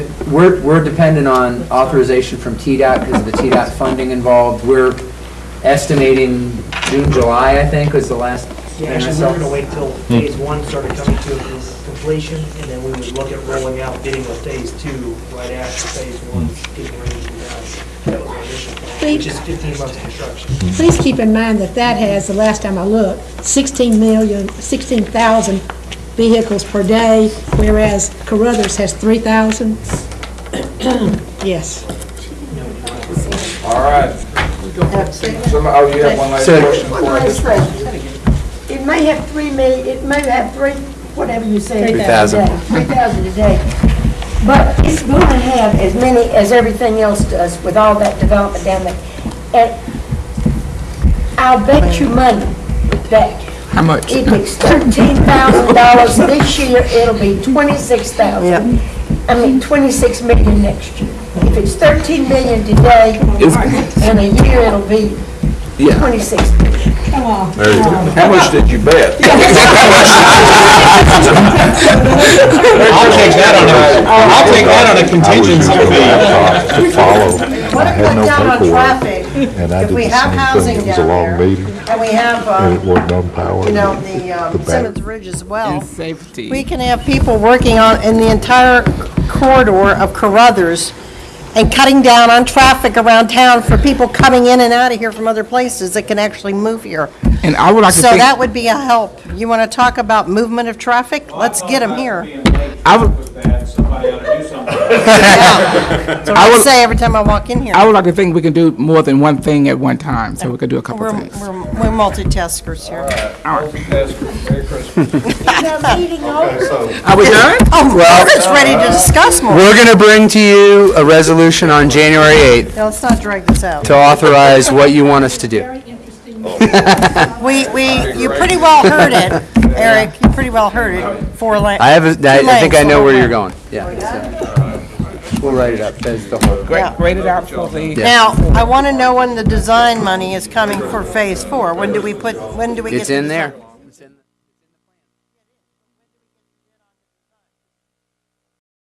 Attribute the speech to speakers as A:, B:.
A: we're, we're dependent on authorization from TDOT because of the TDOT funding involved. We're estimating June, July, I think, was the last
B: Yeah,
A: thing I
B: actually, we
A: saw.
B: were gonna wait till phase one started coming to completion, and then we would look at rolling out bidding with phase two right after phase one's getting ready to be done. That was our initial plan, which is fifteen months of construction.
C: Please keep in mind that that has, the last time I looked, 16 million, 16,000 vehicles per day, whereas Carruthers has 3,000. Yes.
D: All right. Some, oh, you have one last
A: So-
D: question
E: One
D: for us?
E: last question. It may have three million, it may have three, whatever you say.
C: 3,000.
E: Three thousand a day. But it's going to have as many as everything else does with all that development down there. And I'll bet you money that
F: How much?
E: if it's thirteen thousand dollars this year, it'll be twenty-six thousand. I mean, twenty-six million next year. If it's thirteen million today, in a year, it'll be twenty-six million.
D: How much did you bet?
G: I'll take that on a, I'll take that on a contingency fee.
H: To follow. I
I: What if we
H: had no
I: got on
H: paperwork.
I: traffic,
H: And I
I: if
H: did
I: we
H: the
I: have
H: same
I: housing
H: thing. It was a
I: down
H: long
I: there,
H: meeting
I: and we have,
H: and it
I: uh,
H: wasn't on power.
I: you know, the um,
H: back-
I: Simmons Ridge as well,
F: safety.
I: we can have people working on, in the entire corridor of Carruthers and cutting down on traffic around town for people coming in and out of here from other places that can actually move here.
F: And I would like to
I: So that
F: think,
I: would be a help. You want to talk about movement of traffic? Let's get them here.
F: I would-
J: With that, somebody ought to do something.
I: That's what I say every time I walk in here.
F: I would like to think we can do more than one thing at one time, so we could do a couple
I: We're
F: of
I: we're
F: things.
I: we're multitaskers here.
D: Multitasker. Merry Christmas. Okay, so,
A: Are we done?
I: Oh, we're just ready to discuss more.
A: We're going to bring to you a resolution on January 8th
I: Now, let's not drag this out.
A: to authorize what you want us to do.
I: We, we, you pretty well heard it, Eric, you pretty well heard it, four la-
A: I have, a- I I think I know where you're going. Yeah. so. We'll write it up as the whole.
I: yeah.
F: Grade it out for the,
I: Now, I want to know when the design money is coming for phase four. When do we put, when do we get?
A: It's
I: the
A: in
I: design-
A: there.